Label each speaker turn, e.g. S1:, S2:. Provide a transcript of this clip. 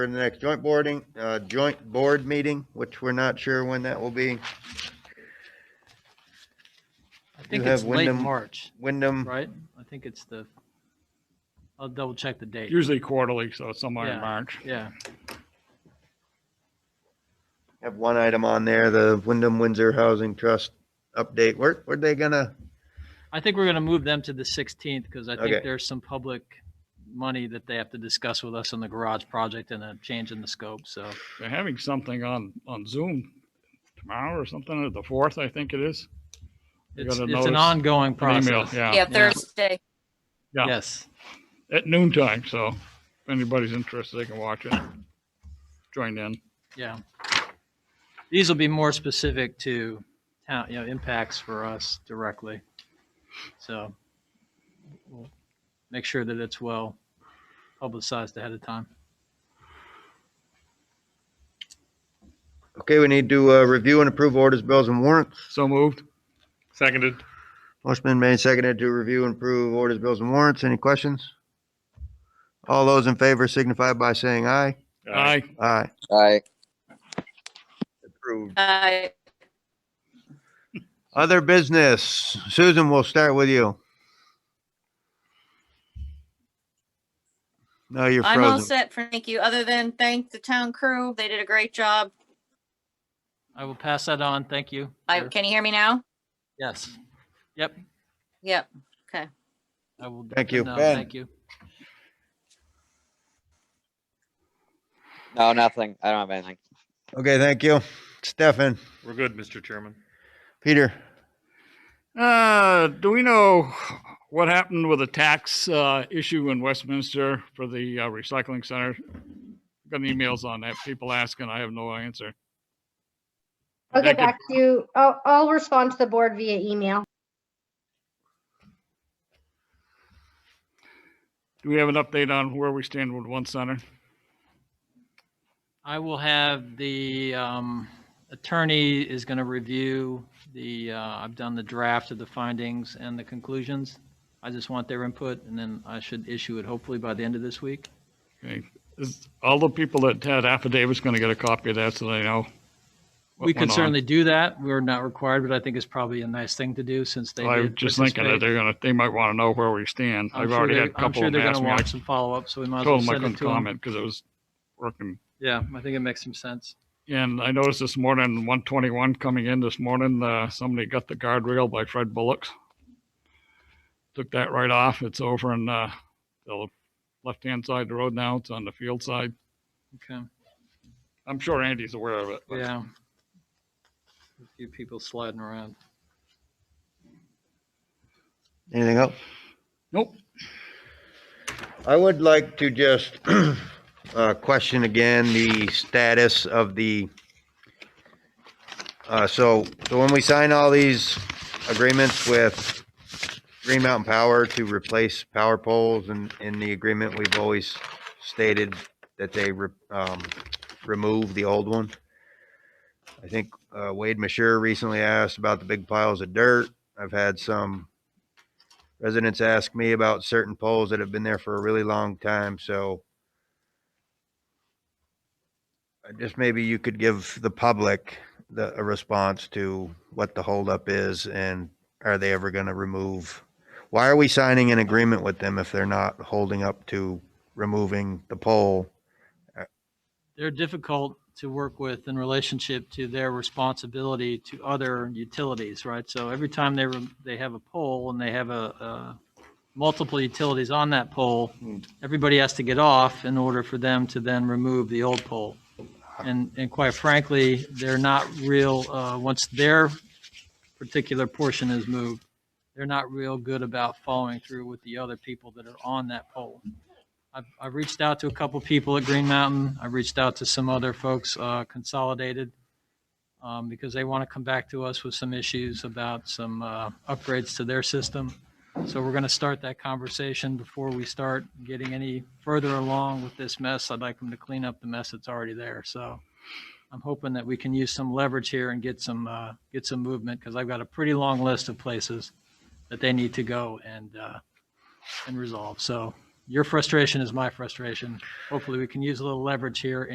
S1: for the next joint boarding, uh, joint board meeting, which we're not sure when that will be.
S2: I think
S1: have Hmm.
S2: it's late
S1: Wyndham-
S2: March,
S1: Wyndham,
S2: right? I think it's the, I'll double check the date.
S3: Usually quarterly, so it's somewhere
S2: Yeah.
S3: in March.
S2: Yeah,
S1: have one item on there, the Wyndham Windsor Housing Trust update. Where, where they gonna,
S2: I think we're going to move them to the 16th because I
S1: Okay.
S2: think there's some public money that they have to discuss with us on the garage project and a change in the scope, so.
S3: They're having something on, on Zoom tomorrow or something, or the fourth, I think it is. You
S2: It's,
S3: gotta
S2: it's an
S3: notice
S2: ongoing
S3: An email,
S2: process.
S3: yeah,
S4: Yeah, Thursday.
S3: yeah.
S2: Yes.
S3: at noontime, so if anybody's interested, they can watch it. Join in.
S2: Yeah. These will be more specific to town, you know, impacts for us directly. So we'll make sure that it's well publicized ahead of time.
S1: okay, we need to, uh, review and approve orders, bills and warrants.
S3: So moved.
S5: Seconded.
S1: Motion been made, seconded to review and approve orders, bills and warrants. Any questions? All those in favor signify by saying aye.
S3: Aye.
S1: Aye.
S6: Aye.
S1: Approved.
S4: Uh,
S1: Other business. Susan, we'll start with you. No, you're
S4: I'm all
S1: frozen.
S4: set for thank you, other than thank the town crew. They did a great job.
S2: I will pass that on. Thank you.
S4: I,
S2: Sure.
S4: can you hear me now?
S2: Yes. Yep.
S4: Yep.
S2: I will. let
S1: Thank
S2: them
S1: you.
S2: know.
S1: Ben.
S2: Thank you.
S6: No, nothing. I don't have anything.
S1: Okay, thank you. Stefan,
S5: We're good, Mr. Chairman.
S1: Peter,
S3: Uh, do we know what happened with the tax, uh, issue in Westminster for the uh, recycling center? Got emails on that, people asking, I have no answer.
S7: I'll
S3: That
S7: get
S3: could-
S7: back to you. I'll, I'll respond to the board via email.
S3: Do we have an update on where we stand with one center?
S2: I will have the um, attorney is going to review the, uh, I've done the draft of the findings and the conclusions. I just want their input and then I should issue it hopefully by the end of this week.
S3: Okay. Is all the people that had affidavits going to get a copy of that so they know? what
S2: We could
S3: went on?
S2: certainly do that. We're not required, but I think it's probably a nice thing to do since they
S3: I was
S2: did
S3: just thinking that
S2: participate.
S3: they're gonna, they might want to know where we stand.
S2: I'm
S3: I've
S2: sure
S3: already
S2: they-
S3: had
S2: I'm
S3: a couple
S2: sure
S3: of
S2: they're
S3: them
S2: going to
S3: ask me.
S2: want
S3: I
S2: some follow-up, so we might as well
S3: told them I
S2: send
S3: couldn't
S2: it to them.
S3: comment because it was working.
S2: Yeah, I think it makes some sense.
S3: And I noticed this morning, one twenty-one coming in this morning, uh, somebody got the guardrail by Fred Bullock's. Took that right off. It's over on, uh, the left-hand side of the road now. It's on the field side.
S2: Okay,
S3: I'm sure Andy's aware of it. but-
S2: yeah. A few people sliding around.
S1: anything else?
S3: Nope.
S1: I would like to just uh, question again the status of the, uh, so, so when we sign all these agreements with Green Mountain Power to replace power poles and in the agreement, we've always stated that they re- um, remove the old one. I think uh, Wade Mashure recently asked about the big piles of dirt. I've had some residents ask me about certain poles that have been there for a really long time, so I just maybe you could give the public the, a response to what the holdup is and are they ever gonna remove? Why are we signing an agreement with them if they're not holding up to removing the pole?
S2: they're difficult to work with in relationship to their responsibility to other utilities, right? So every time they, rem- they have a pole and they have a, uh, multiple utilities on that pole, everybody has to get off in order for them to then remove the old pole. And, and quite frankly, they're not real, uh, once their particular portion is moved, they're not real good about following through with the other people that are on that pole. I've, I've reached out to a couple people at Green Mountain. I've reached out to some other folks, uh, Consolidated, um, because they want to come back to us with some issues about some, uh, upgrades to their system. So we're going to start that conversation before we start getting any further along with this mess. I'd like them to clean up the mess that's already there. So I'm hoping that we can use some leverage here and get some, uh, get some movement because I've got a pretty long list of places that they need to go and, uh, and resolve. So your frustration is my frustration. Hopefully, we can use a little leverage here